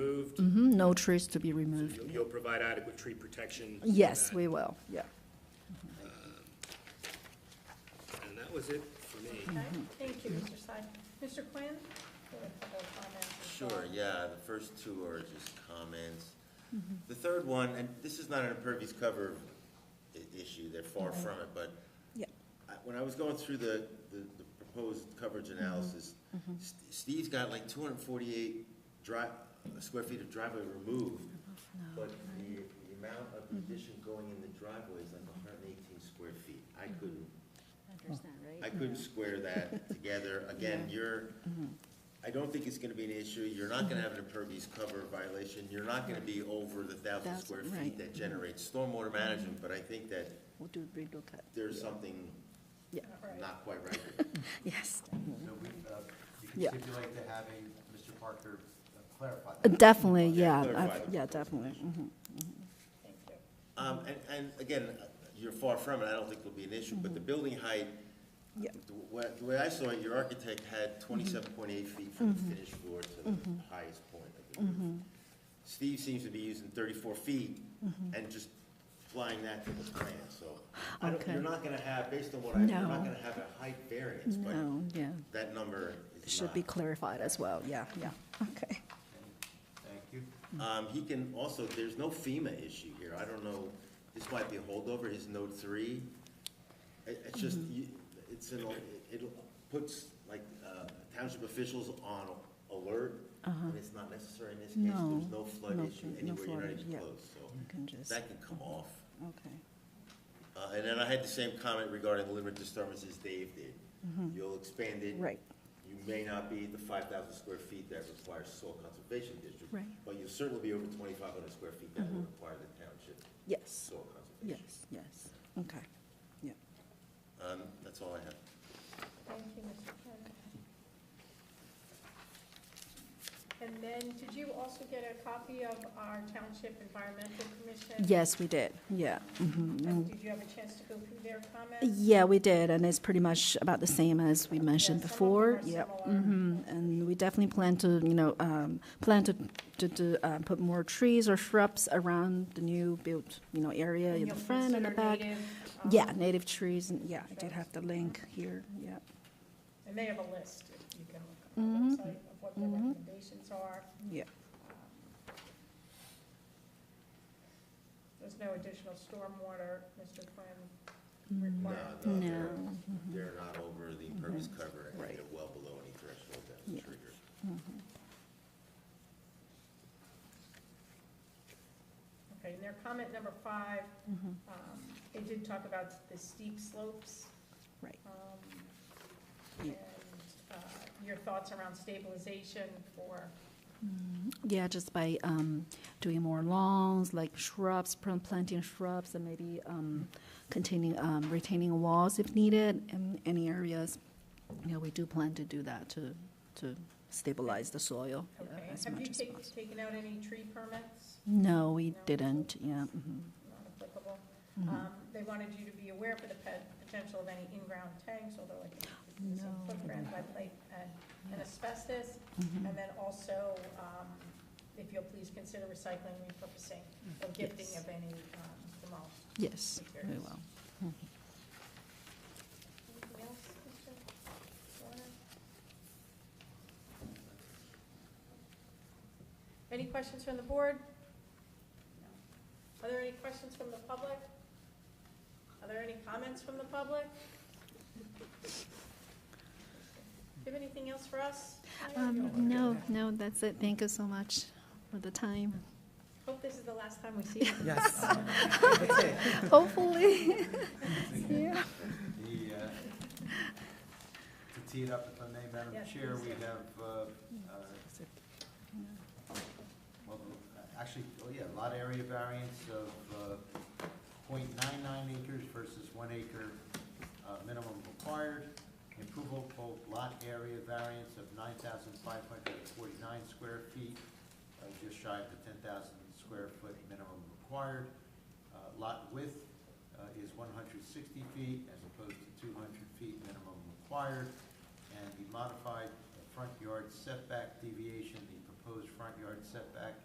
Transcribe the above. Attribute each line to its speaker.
Speaker 1: no trees to be removed.
Speaker 2: You'll- You'll provide adequate tree protection? for
Speaker 1: Mm-hmm. Yes,
Speaker 2: that.
Speaker 1: we will, yeah.
Speaker 2: And that was it for me.
Speaker 3: Okay, thank you, Mr. Simon. Mr. Quinn? you have a couple of comments as
Speaker 4: Sure,
Speaker 3: well.
Speaker 4: yeah, the first two are just comments. The third one, and this is not an impervious cover i- issue, they're far from it, but
Speaker 1: Yeah.
Speaker 4: I- when I was going through the, the the proposed coverage analysis, S- Steve's got like two hundred and forty-eight dri, square feet of driveway removed, but the, the amount of the addition going in the driveway is like hundred and eighteen square feet. I couldn't I couldn't square that together. Again, you're, I don't think it's gonna be an issue. You're not gonna have an impervious cover violation. You're not gonna be over the thousand
Speaker 1: Thousand,
Speaker 4: square
Speaker 1: right.
Speaker 4: feet that generates stormwater management, but I think that
Speaker 1: We'll do a relook at,
Speaker 4: there's something
Speaker 1: yeah,
Speaker 4: not quite right.
Speaker 1: yes.
Speaker 5: So we, uh, you can
Speaker 1: Yeah.
Speaker 5: stipulate to having Mr. Parker uh, clarify that.
Speaker 1: Definitely, yeah,
Speaker 4: Yeah, clarify
Speaker 1: I've-
Speaker 4: the
Speaker 1: yeah,
Speaker 4: proposed
Speaker 1: definitely. mhm.
Speaker 3: Thank you.
Speaker 4: Um, and, and again, you're far from it. I don't think it'll be an issue, but the building height,
Speaker 1: Mm-hmm. Yeah. Mm-hmm.
Speaker 4: the way, the way I saw it, your architect had twenty-seven point eight feet from the finished floor to the highest point of the
Speaker 1: Mm-hmm.
Speaker 4: roof. Steve seems to be using thirty-four feet
Speaker 1: Mm-hmm.
Speaker 4: and just flying that to the plan, so. I don't,
Speaker 1: Okay.
Speaker 4: you're not gonna have, based on what I, you're
Speaker 1: No.
Speaker 4: not gonna have a height variance, but
Speaker 1: No, yeah,
Speaker 4: that number
Speaker 1: it
Speaker 4: is
Speaker 1: should be
Speaker 4: not.
Speaker 1: clarified as well, yeah, yeah, okay.
Speaker 5: Thank you.
Speaker 4: Um, he can also, there's no FEMA issue here, I don't know, this might be a holdover, his note three. It, it's just,
Speaker 1: Mm-hmm.
Speaker 4: you, it's an, it it puts like, uh, township officials on alert, and it's not necessary in this case,
Speaker 1: Uh-huh. No,
Speaker 4: there's no flood
Speaker 1: no
Speaker 4: issue
Speaker 1: flood- no
Speaker 4: anywhere, you're not
Speaker 1: flood, yeah.
Speaker 4: even close,
Speaker 1: You
Speaker 4: so.
Speaker 1: can just,
Speaker 4: That can come off.
Speaker 1: okay,
Speaker 4: Uh, and then I had the same comment regarding the limit disturbances Dave did. You'll expand it.
Speaker 1: Mm-hmm. right,
Speaker 4: You may not be the five thousand square feet that requires soil conservation district.
Speaker 1: Right.
Speaker 4: But you'll certainly be over twenty-five hundred square feet that will require the township
Speaker 1: yes,
Speaker 4: soil conservation.
Speaker 1: yes, yes, okay, yeah.
Speaker 4: Um, that's all I have.
Speaker 3: Thank you, Mr. Quinn. And then, did you also get a copy of our Township Environmental Commission?
Speaker 1: Yes, we did, yeah.
Speaker 3: And Did you have a chance to go through their comments?
Speaker 1: Yeah, we did, and it's pretty much about the same as we mentioned
Speaker 3: Yeah, some of them
Speaker 1: before.
Speaker 3: are
Speaker 1: Yep.
Speaker 3: similar.
Speaker 1: mhm. And we definitely plan to, you know, um, plan to, to, to uh, put more trees or shrubs around the new built, you know, area in the
Speaker 3: you'll
Speaker 1: front and the
Speaker 3: consider
Speaker 1: back.
Speaker 3: native, um,
Speaker 1: Yeah, native trees, and yeah, I did
Speaker 3: shrubs.
Speaker 1: have the link here, yeah.
Speaker 3: And they have a list, if you can look on the website, of what their recommendations are.
Speaker 1: Mm-hmm.
Speaker 3: Um,
Speaker 1: Yeah,
Speaker 3: There's no additional stormwater, Mr. Quinn,
Speaker 4: No,
Speaker 1: Mm-hmm.
Speaker 3: required.
Speaker 4: no,
Speaker 1: No.
Speaker 4: they're, they're not over the impervious cover and
Speaker 1: Mm-hmm. Right.
Speaker 4: they're well below any threshold that
Speaker 1: Yeah.
Speaker 4: was triggered.
Speaker 1: mm-hmm.
Speaker 3: Okay, and their comment number five, um, they did talk about the steep slopes.
Speaker 1: Right.
Speaker 3: Um,
Speaker 1: Yeah.
Speaker 3: And uh, your thoughts around stabilization for,
Speaker 1: yeah, just by um, doing more lawns, like shrubs, plant- planting shrubs, and maybe um, containing, um, retaining walls if needed in any areas. You know, we do plan to do that to, to stabilize the soil yeah,
Speaker 3: okay.
Speaker 1: as
Speaker 3: Have you
Speaker 1: much as
Speaker 3: taken,
Speaker 1: possible.
Speaker 3: taken out any tree permits?
Speaker 1: No, we
Speaker 3: No?
Speaker 1: didn't, yeah. mhm.
Speaker 3: Not applicable.
Speaker 1: Mm-hmm.
Speaker 3: Um, They wanted you to be aware for the pe- potential of any in-ground tanks, although I think it's
Speaker 1: No.
Speaker 3: a footprint by plate and and asbestos.
Speaker 1: mm-hmm.
Speaker 3: And then also, um, if you'll please consider recycling, repurposing, or gifting
Speaker 1: Yes.
Speaker 3: of any um, demolished
Speaker 1: Yes, we
Speaker 3: Materials.
Speaker 1: will.
Speaker 3: Anything else, Mr. Warner? Any questions from the board? Are there any questions from the public? Are there any comments from the public? Do you have anything else for us?
Speaker 1: Um, No, no, that's it. Thank you so much for the time.
Speaker 3: Hope this is the last time we see you.
Speaker 5: Yes.
Speaker 1: Hopefully. Yeah.
Speaker 5: The, uh, to tee it up, if I may, Madam
Speaker 3: Yes,
Speaker 5: Chair,
Speaker 3: please
Speaker 5: we
Speaker 3: do.
Speaker 5: have, uh, uh, well, actually, oh yeah, lot area variance of uh, point nine nine acres versus one acre uh, minimum required. Improvable lot area variance of nine thousand five hundred and forty-nine square feet, uh, just shy of the ten thousand square foot minimum required. Uh, Lot width uh, is one hundred sixty feet as opposed to two hundred feet minimum required. And the modified front yard setback deviation, the proposed front yard setback